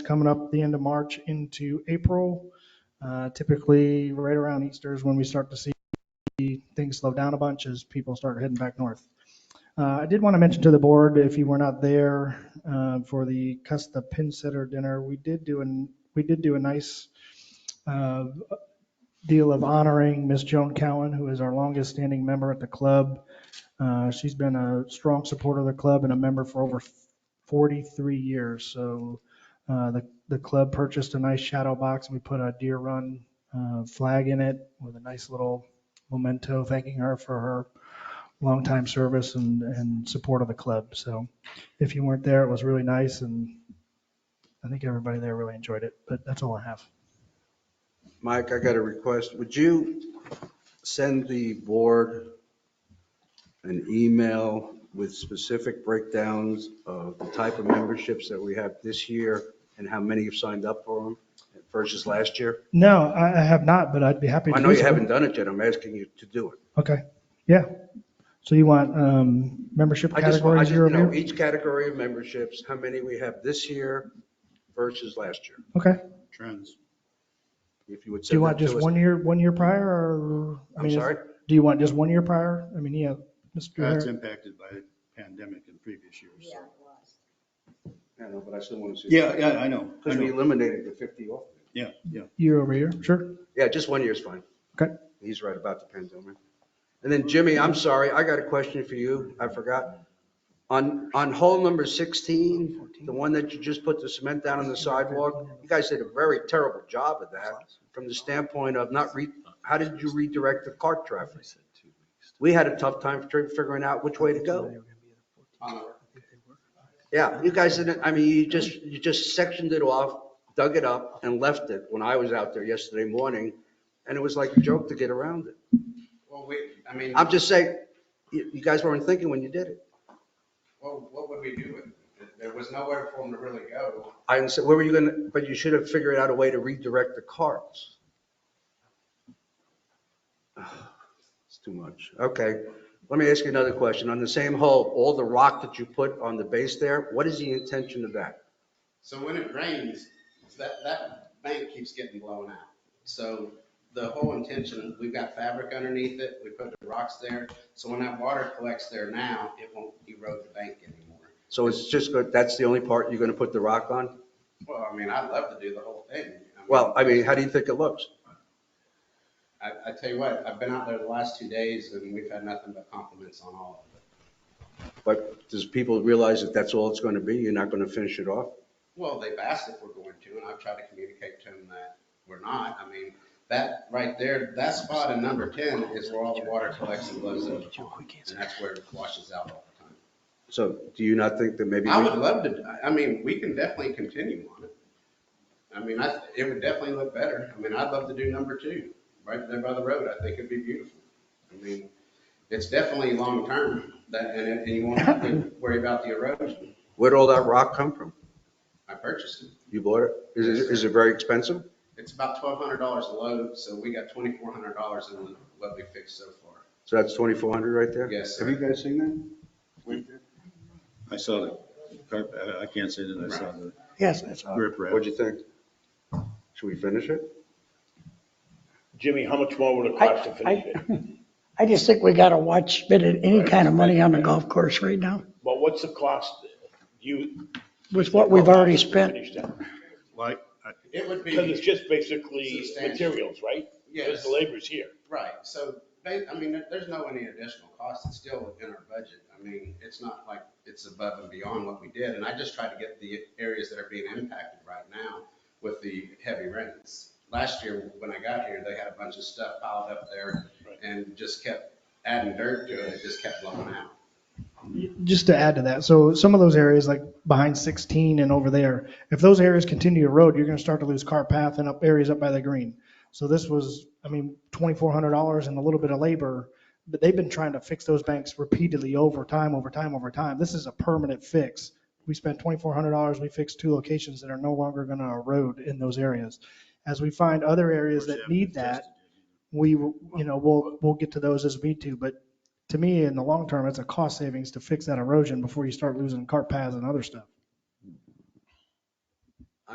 coming up the end of March into April. Uh, Typically, right around Easter is when we start to see things slow down a bunch as people start heading back north. Uh, I did want to mention to the board, if you were not there uh, for the Custa Pin Sitter Dinner, we did do an, we did do a nice uh, deal of honoring Miss Joan Cowan, who is our longest-standing member at the club. Uh, She's been a strong supporter of the club and a member for over 43 years. So uh, the, the club purchased a nice shadow box, and we put a Deer Run uh, flag in it with a nice little memento thanking her for her longtime service and, and support of the club. So if you weren't there, it was really nice, and I think everybody there really enjoyed it, but that's all I have. Mike, I got a request. Would you send the board an email with specific breakdowns of the type of memberships that we have this year and how many have signed up for them versus last year? No, I, I have not, but I'd be happy to. I know do you so. haven't done it yet. I'm asking you to do it. Okay, yeah. So you want um, membership I just, want- I categories just, year you over know, year? each category of memberships, how many we have this year versus last year, Okay. Trends. if you would Do you send want that just to us. one year, one year prior or? I I'm mean, is- sorry? Do you want just one year prior? I mean, yeah, Mr. That's Harris. impacted by the pandemic in previous years. so. I know, but I still want to see. Yeah, yeah, I know. I Because we know. eliminated the 50 off. Yeah, yeah. year over year, sure. Yeah, just one year is fine. Okay. He's right about the pandemic. And then Jimmy, I'm sorry, I got a question for you. I forgot. On, on hole number 16, the one that you just put the cement down on the sidewalk, you guys did a very terrible job of that from the standpoint of not re, how did you redirect the cart traffic? We had a tough time fi- figuring out which way to go. Uh, Yeah, you guys didn't, I mean, you just, you just sectioned it off, dug it up and left it when I was out there yesterday morning. And it was like a joke to get around it. Well, we, I mean, I'm just saying, you, you guys weren't thinking when you did it. well, what would we do with it? There was nowhere for them to really go. I didn't say, where were you gonna, but you should have figured out a way to redirect the carts. It's too much. Okay, let me ask you another question. On the same hole, all the rock that you put on the base there, what is the intention of that? So when it rains, that, that bank keeps getting blown out. So the whole intention, we've got fabric underneath it, we put the rocks there. So when that water collects there now, it won't erode the bank anymore. So it's just, go- that's the only part you're gonna put the rock on? Well, I mean, I'd love to do the whole thing. I mean, Well, I mean, how do you think it looks? I, I tell you what, I've been out there the last two days and we've had nothing but compliments on all of it. But does people realize that that's all it's gonna be? You're not gonna finish it off? Well, they've asked if we're going to, and I've tried to communicate to them that we're not. I mean, that right there, that spot in number ten is where all the water collects and blows over. the pond, And that's where it washes out all the time. So do you not think that maybe? I we- would love to, I mean, we can definitely continue on it. I mean, I, it would definitely look better. I mean, I'd love to do number two, right there by the road. I think it'd be beautiful. I mean, it's definitely long-term, that, and, and you won't have to worry about the erosion. Where'd all that rock come from? I purchased it. You bought it? Is it, is it very expensive? It's about twelve hundred dollars a load, so we got twenty-four hundred dollars in what we fixed so far. So that's 2,400 right there? Yes, Have you guys seen that? I saw the carpet. I can't say that I saw the Yes, that's all. grip wrap. What'd you think? Should we finish it? Jimmy, how much more would it I- cost to finish it? I just think we gotta watch, spending any kind of money on the golf course right now But what's the cost? You. Oh, with what we've already spent. Like, I- It would Because it's be, just basically Substantial. materials, right? Because yes, the labor's here. right, so, ba- I mean, there- there's no any additional cost, it's still within our budget. I mean, it's not like it's above and beyond what we did, and I just tried to get the areas that are being impacted right now with the heavy rains. Last year, when I got here, they had a bunch of stuff piled up there Right. and just kept adding dirt to it, it just kept blowing out. Just to add to that, so some of those areas like behind 16 and over there, if those areas continue to erode, you're going to start to lose cart path and up areas up by the green. So this was, I mean, $2,400 and a little bit of labor, but they've been trying to fix those banks repeatedly over time, over time, over time. This is a permanent fix. We spent $2,400, we fixed two locations that are no longer going to erode in those areas. As we find other areas that need that, we, will- you know, we'll, we'll get to those as we need to, but to me, in the long term, it's a cost savings to fix that erosion before you start losing cart paths and other stuff.